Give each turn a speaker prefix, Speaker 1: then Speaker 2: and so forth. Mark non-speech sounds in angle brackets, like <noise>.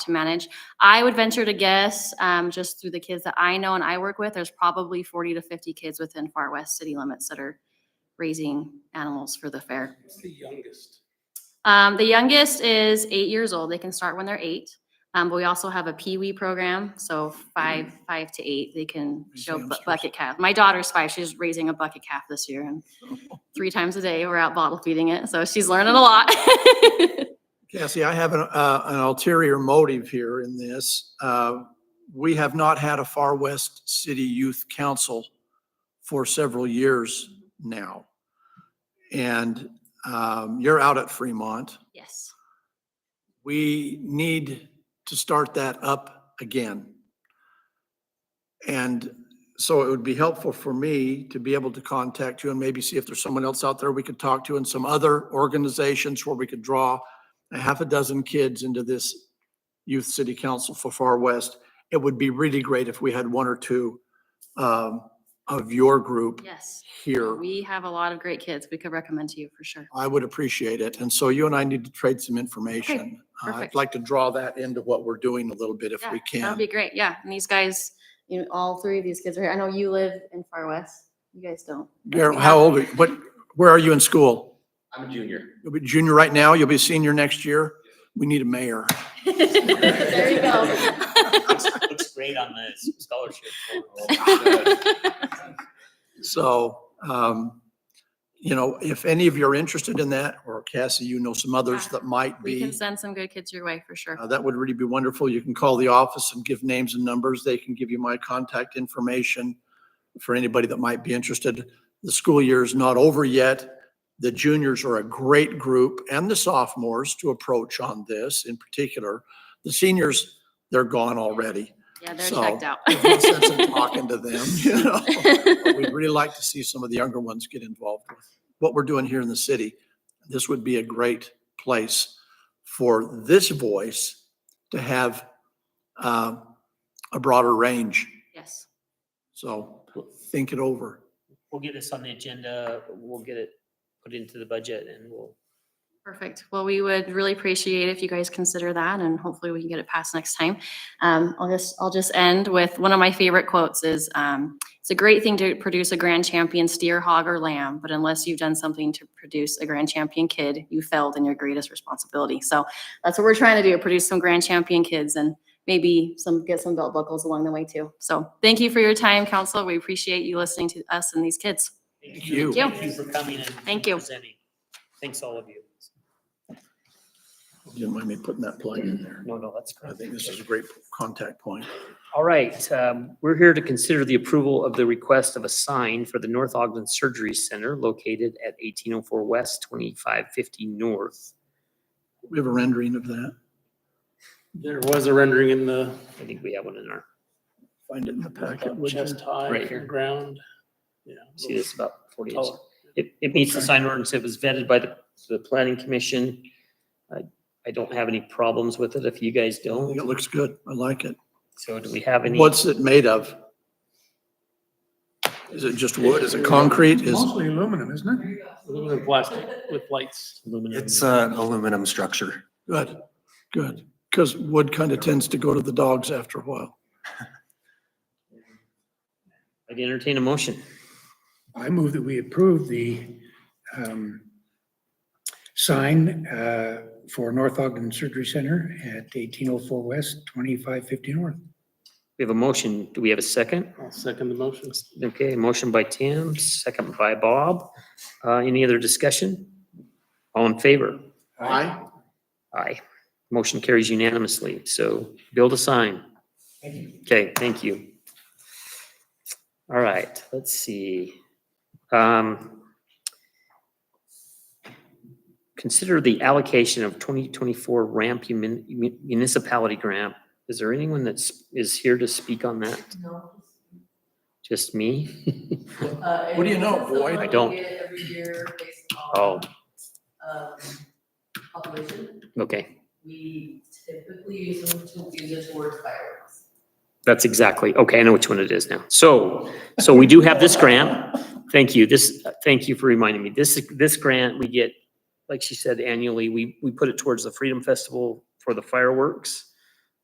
Speaker 1: to manage. I would venture to guess, um, just through the kids that I know and I work with, there's probably forty to fifty kids within Far West city limits that are raising animals for the fair.
Speaker 2: It's the youngest.
Speaker 1: Um, the youngest is eight years old. They can start when they're eight. Um, but we also have a Pee Wee program, so five, five to eight, they can
Speaker 3: Raise
Speaker 1: show
Speaker 3: the
Speaker 1: bu-
Speaker 3: youngsters.
Speaker 1: bucket calf. My daughter's five. She's raising a bucket calf this year, and three times a day we're out bottle feeding it, so she's learning a lot. <laughs>
Speaker 3: Cassie, I have an, uh, an ulterior motive here in this. Uh, we have not had a Far West City Youth Council for several years now. And, um, you're out at Fremont.
Speaker 1: yes,
Speaker 3: We need to start that up again. And so it would be helpful for me to be able to contact you and maybe see if there's someone else out there we could talk to and some other organizations where we could draw a half a dozen kids into this youth city council for Far West. It would be really great if we had one or two um, of your group
Speaker 1: yes.
Speaker 3: here.
Speaker 1: We have a lot of great kids we could recommend to you for sure.
Speaker 3: I would appreciate it. And so you and I need to trade some information. Uh, I'd
Speaker 1: perfect.
Speaker 3: like to draw that into what we're doing a little bit if
Speaker 1: Yeah,
Speaker 3: we
Speaker 1: That'd
Speaker 3: can.
Speaker 1: be great. Yeah, and these guys, you know, all three of these kids are here. I know you live in Far West. You guys don't.
Speaker 3: Garrett, how old are you? What, where are you in school?
Speaker 2: I'm a
Speaker 1: <laughs>
Speaker 2: junior.
Speaker 3: You'll be junior right now? You'll be senior next year? We need a mayor.
Speaker 1: There you go.
Speaker 4: looks, looks great on the s- scholarship.
Speaker 1: Oh
Speaker 4: photo.
Speaker 3: So, um, you know, if any of you are interested in that, or Cassie, you know some others
Speaker 1: Yeah,
Speaker 3: that might
Speaker 1: Ah, We can
Speaker 3: be,
Speaker 1: send some good kids your way for sure.
Speaker 3: uh, that would really be wonderful. You can call the office and give names and numbers. They can give you my contact information for anybody that might be interested. The school year is not over yet. The juniors are a great group and the sophomores to approach on this in particular. The seniors, they're gone already.
Speaker 1: Yeah, they're
Speaker 3: So,
Speaker 1: checked out.
Speaker 3: There's no sense in talking to them, <laughs> you know?
Speaker 1: <laughs>
Speaker 3: But We'd really like to see some of the younger ones get involved with what we're doing here in the city. This would be a great place for this voice to have uh, a broader range.
Speaker 1: Yes.
Speaker 3: So think it over.
Speaker 4: We'll get this on the agenda, we'll get it put into the budget and we'll,
Speaker 1: Perfect. Well, we would really appreciate if you guys consider that and hopefully we can get it passed next time. Um, I'll just, I'll just end with one of my favorite quotes is, um, it's a great thing to produce a grand champion steer, hog or lamb, but unless you've done something to produce a grand champion kid, you failed in your greatest responsibility. So that's what we're trying to do, produce some grand champion kids and maybe some, get some belt buckles along the way too. So thank you for your time, council. We appreciate you listening to us and these kids.
Speaker 4: thank
Speaker 3: Thank
Speaker 4: you.
Speaker 3: you.
Speaker 1: Thank you.
Speaker 4: Thank you for coming and.
Speaker 1: Thank you.
Speaker 4: Presenting. Thanks all of you.
Speaker 3: You Didn't mind me putting that plug in there.
Speaker 4: No, no, that's great.
Speaker 3: I think this is a great contact point.
Speaker 4: All right, um, we're here to consider the approval of the request of a sign for the North Ogden Surgery Center located at eighteen oh four west, twenty-five fifty north.
Speaker 3: We have a rendering of that.
Speaker 5: There was a rendering in the
Speaker 4: I think we have one in our,
Speaker 3: Find it in the packet. would you?
Speaker 5: chest high
Speaker 4: Right here.
Speaker 5: ground. Yeah.
Speaker 4: see this about forty inches.
Speaker 5: Taller.
Speaker 4: It, it meets the sign ordinance. It was vetted by the, the planning commission. I, I don't have any problems with it if you guys
Speaker 3: I think
Speaker 4: don't.
Speaker 3: it looks good. I like it.
Speaker 4: So do we have any?
Speaker 3: What's it made of? Is it just wood? Is it concrete? Is,
Speaker 6: Mostly aluminum, isn't it?
Speaker 5: Aluminum plastic with lights.
Speaker 4: Aluminum.
Speaker 7: It's
Speaker 3: uh,
Speaker 7: an aluminum structure.
Speaker 3: good, good. Because wood kind of tends to go to the dogs after a while.
Speaker 4: I'd entertain a motion.
Speaker 6: I move that we approve the um, sign uh, for North Ogden Surgery Center at 1804 West, 2550 North.
Speaker 4: We have a motion. Do we have a second?
Speaker 5: I'll second the motion.
Speaker 4: Okay, motion by Tim, second by Bob. Uh, any other discussion? All in favor?
Speaker 3: Aye.
Speaker 4: Aye. Motion carries unanimously. So build a sign. Okay, thank you. All right, let's see. Um, Consider the allocation of 2024 ramp mun- mun- municipality grant. Is there anyone that's, is here to speak on that?
Speaker 8: No.
Speaker 4: Just me?
Speaker 3: What do you know, boy?
Speaker 4: I don't.
Speaker 8: Every year based
Speaker 4: Oh,
Speaker 8: on, um, population,
Speaker 4: okay.
Speaker 8: we typically use them to use it towards fireworks.
Speaker 4: That's exactly, okay, I know which one it is now. So, so we do have this grant. Thank you, this, thank you for reminding me. This, this grant we get, like she said, annually, we, we put it towards the Freedom Festival for the fireworks.